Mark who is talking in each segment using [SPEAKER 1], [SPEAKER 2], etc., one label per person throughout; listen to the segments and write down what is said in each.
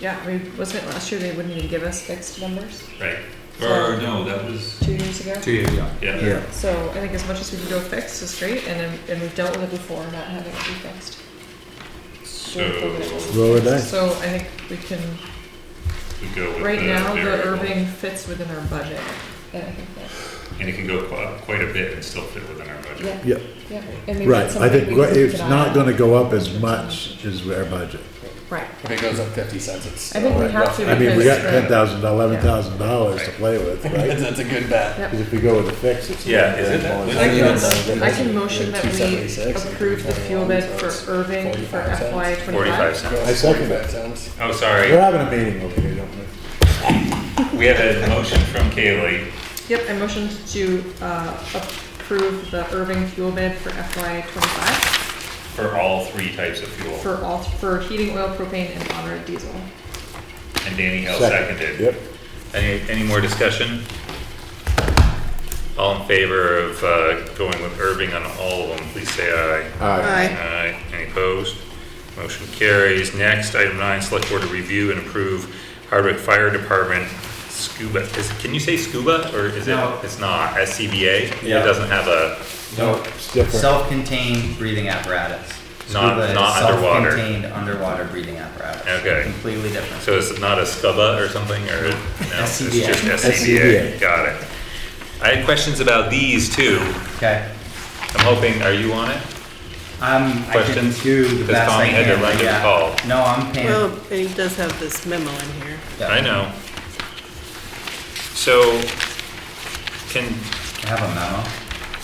[SPEAKER 1] Yeah, I mean, wasn't it last year they wouldn't even give us fixed numbers,
[SPEAKER 2] right? Or no, that was,
[SPEAKER 1] two years ago?
[SPEAKER 3] Two years, yeah.
[SPEAKER 2] yeah,
[SPEAKER 4] Yeah,
[SPEAKER 1] So I think as much as we can go fixed is great, and, then- and we've dealt with it before, not having it be fixed.
[SPEAKER 2] so
[SPEAKER 4] roll a dice.
[SPEAKER 1] So I think we can,
[SPEAKER 2] we go with the.
[SPEAKER 1] right now, the
[SPEAKER 2] variable.
[SPEAKER 1] Irving fits within our budget, and I think that,
[SPEAKER 2] And it can go qu- up quite a bit and still fit within our budget.
[SPEAKER 1] yeah,
[SPEAKER 4] Yeah,
[SPEAKER 1] yeah. and maybe
[SPEAKER 4] right,
[SPEAKER 1] that's
[SPEAKER 4] I think
[SPEAKER 1] something we can keep
[SPEAKER 4] it's
[SPEAKER 1] an eye
[SPEAKER 4] not
[SPEAKER 1] on.
[SPEAKER 4] gonna go up as much as our budget.
[SPEAKER 1] Right,
[SPEAKER 5] If it goes up fifty cents, it's
[SPEAKER 1] I think
[SPEAKER 5] still
[SPEAKER 1] we have to
[SPEAKER 4] I mean, we got
[SPEAKER 1] because,
[SPEAKER 4] ten
[SPEAKER 1] right,
[SPEAKER 4] thousand, eleven thousand dollars to play with, right?
[SPEAKER 5] that's, that's a good bet.
[SPEAKER 1] yep.
[SPEAKER 4] Cause if we go with a fix, it's.
[SPEAKER 2] Yeah, is it that-
[SPEAKER 4] Yeah.
[SPEAKER 1] I
[SPEAKER 5] Yeah.
[SPEAKER 1] can, I can motion that we
[SPEAKER 5] 276,
[SPEAKER 1] approve the fuel bid for Irving for
[SPEAKER 5] 45 cents.
[SPEAKER 1] FY
[SPEAKER 2] Forty-five
[SPEAKER 1] twenty-five.
[SPEAKER 2] cents.
[SPEAKER 4] I second it.
[SPEAKER 5] 45 cents.
[SPEAKER 2] Oh, sorry,
[SPEAKER 4] We're having a meeting over here, don't we?
[SPEAKER 2] we have a motion from Kaylee,
[SPEAKER 1] Yep, I motioned to, uh, approve the Irving fuel bid for FY twenty-five
[SPEAKER 2] for all three types of fuel.
[SPEAKER 1] for all, for heating oil, propane, and honored diesel.
[SPEAKER 2] And Danny Hill
[SPEAKER 4] Second.
[SPEAKER 2] seconded.
[SPEAKER 4] Yep.
[SPEAKER 2] Any, any more discussion? All in favor of, uh, going with Irving on all of them, please say aye.
[SPEAKER 4] Aye.
[SPEAKER 2] Aye. Any opposed? Motion carries. Next, item nine, select board to review and approve Hardwick Fire Department scuba, is, can you say scuba, or is it,
[SPEAKER 6] No.
[SPEAKER 2] it's not, SCBA? It
[SPEAKER 6] Yeah.
[SPEAKER 2] doesn't have a,
[SPEAKER 6] No,
[SPEAKER 4] It's different.
[SPEAKER 6] self-contained breathing apparatus.
[SPEAKER 2] Not-
[SPEAKER 6] Scuba is
[SPEAKER 2] not underwater.
[SPEAKER 6] Self-contained underwater breathing apparatus.
[SPEAKER 2] Okay.
[SPEAKER 6] Completely different.
[SPEAKER 2] so it's not a scuba or something, or? no, It's
[SPEAKER 6] SCBA.
[SPEAKER 2] just SCBA, got it. I had questions about these too.
[SPEAKER 6] Okay.
[SPEAKER 2] I'm hoping, are you on it?
[SPEAKER 6] Um, I can
[SPEAKER 2] Questions?
[SPEAKER 6] do the
[SPEAKER 2] Because
[SPEAKER 6] best
[SPEAKER 2] Tommy
[SPEAKER 6] I
[SPEAKER 2] had to
[SPEAKER 6] can,
[SPEAKER 2] run to
[SPEAKER 6] but
[SPEAKER 2] the
[SPEAKER 6] yeah.
[SPEAKER 2] call.
[SPEAKER 6] No, I'm
[SPEAKER 7] Well,
[SPEAKER 6] paying.
[SPEAKER 7] and Oh, he does have this memo in here.
[SPEAKER 6] yeah.
[SPEAKER 2] I know. So, can,
[SPEAKER 6] I have a memo.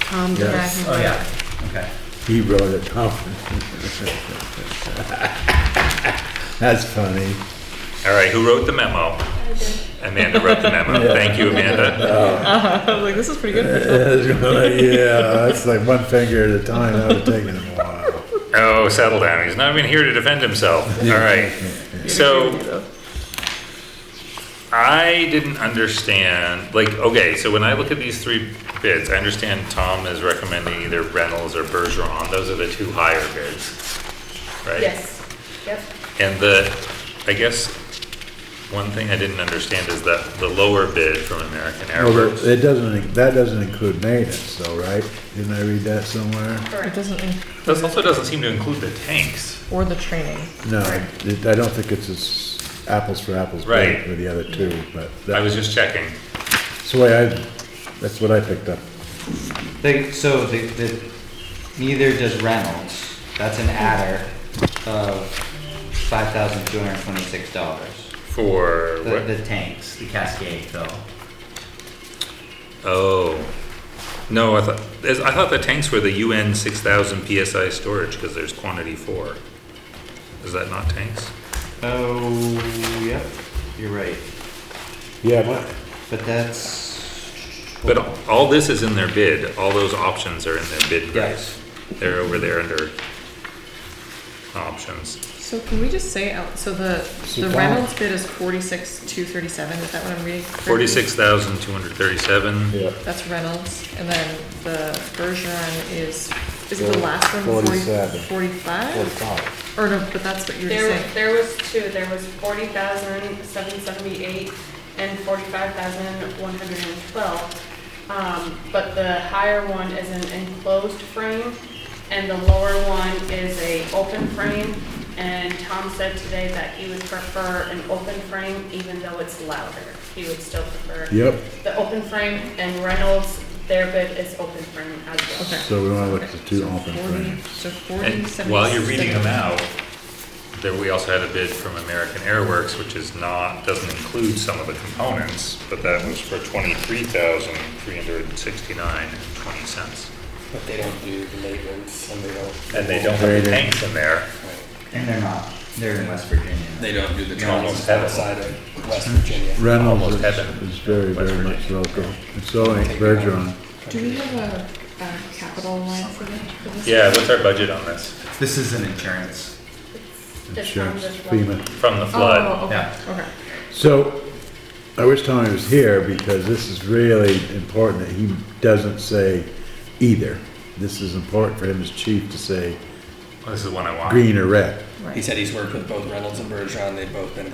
[SPEAKER 7] Tom
[SPEAKER 4] Yeah.
[SPEAKER 7] does.
[SPEAKER 6] Oh, yeah. Okay.
[SPEAKER 4] He wrote it down. That's funny.
[SPEAKER 2] all right, who wrote the memo? Amanda wrote the memo. Thank you, Amanda.
[SPEAKER 1] I was like, this is pretty good for
[SPEAKER 4] Yeah, that's like one finger at a time, that would've taken him a while.
[SPEAKER 2] Oh, settle down. He's not even here to defend himself. All right. So, I didn't understand, like, okay, so when I look at these three bids, I understand Tom is recommending either Reynolds or Bergeron. Those are the two higher bids, right?
[SPEAKER 1] Yes, yep.
[SPEAKER 2] And the, I guess, one thing I didn't understand is that the lower bid from American
[SPEAKER 4] Well,
[SPEAKER 2] Airworks.
[SPEAKER 4] It doesn't, that doesn't include maintenance though, right? Didn't I read that somewhere?
[SPEAKER 1] It doesn't, in-
[SPEAKER 2] This also doesn't seem to include the tanks.
[SPEAKER 1] or the training.
[SPEAKER 4] No, it- I don't think it's as apples for apples
[SPEAKER 2] Right.
[SPEAKER 4] with the other two, but
[SPEAKER 2] I
[SPEAKER 4] that-
[SPEAKER 2] was just checking.
[SPEAKER 4] that's the way I, that's what I picked up.
[SPEAKER 6] They, so the, the, neither does Reynolds. That's an adder of five thousand two hundred twenty-six dollars.
[SPEAKER 2] For
[SPEAKER 6] The,
[SPEAKER 2] what?
[SPEAKER 6] the tanks, the Cascade fill.
[SPEAKER 2] Oh. No, I thought, is- I thought the tanks were the UN six thousand PSI storage, cause there's quantity four. Is that not tanks?
[SPEAKER 6] Oh, yep. You're right.
[SPEAKER 4] Yeah, my,
[SPEAKER 6] But that's.
[SPEAKER 2] But all this is in their bid. All those options are in their bid price.
[SPEAKER 6] Yes.
[SPEAKER 2] They're over there under options.
[SPEAKER 1] So can we just say, out? so the,
[SPEAKER 4] So
[SPEAKER 1] the
[SPEAKER 4] Tom-
[SPEAKER 1] Reynolds bid is forty-six, two thirty-seven, is that what I'm reading? correctly?
[SPEAKER 2] Forty-six thousand two hundred thirty-seven.
[SPEAKER 4] yeah,
[SPEAKER 1] That's Reynolds, and then the Bergeron is, is it the last one?
[SPEAKER 4] 47.
[SPEAKER 1] Forty-five?
[SPEAKER 4] forty-five.
[SPEAKER 1] Or no, but that's what you're just
[SPEAKER 8] There,
[SPEAKER 1] saying.
[SPEAKER 8] there was two, there was forty thousand seven seventy-eight and forty-five thousand one hundred and twelve. Um, but the higher one is an enclosed frame, and the lower one is a open frame. And Tom said today that he would prefer an open frame, even though it's louder, he would still prefer.
[SPEAKER 4] Yep,
[SPEAKER 8] The open frame and Reynolds, their bid is open frame as well.
[SPEAKER 1] Okay.
[SPEAKER 4] so we wanna look at the two open
[SPEAKER 1] 40
[SPEAKER 4] frames.
[SPEAKER 1] So
[SPEAKER 2] And
[SPEAKER 1] forty-seven.
[SPEAKER 2] while you're reading them out, there, we also had a bid from American Airworks, which is not, doesn't include some of the components, but that was for twenty-three thousand three hundred and sixty-nine and twenty cents.
[SPEAKER 5] But they don't do the maintenance and they don't.
[SPEAKER 2] And they don't have the tanks in there.
[SPEAKER 6] And they're not. They're in West Virginia.
[SPEAKER 5] They don't do the
[SPEAKER 2] You almost
[SPEAKER 5] trails
[SPEAKER 2] have it.
[SPEAKER 5] outside of West Virginia.
[SPEAKER 4] Reynolds
[SPEAKER 2] Almost
[SPEAKER 4] is,
[SPEAKER 2] heaven.
[SPEAKER 4] is very,
[SPEAKER 2] West
[SPEAKER 4] very much local, and so ain't Bergeron.
[SPEAKER 1] Do we have a, a capital line for that, for this?
[SPEAKER 2] Yeah, what's our budget on this?
[SPEAKER 6] This is an insurance.
[SPEAKER 8] Just from
[SPEAKER 4] Insurance,
[SPEAKER 8] this one.
[SPEAKER 4] FEMA.
[SPEAKER 2] From the flood?
[SPEAKER 1] Oh, okay,
[SPEAKER 6] Yeah.
[SPEAKER 1] okay.
[SPEAKER 4] So, I wish Tommy was here because this is really important that he doesn't say either. This is important for him as chief to say
[SPEAKER 2] This is the one I want.
[SPEAKER 4] green or red.
[SPEAKER 5] He said he's worked with both Reynolds and Bergeron. They've both been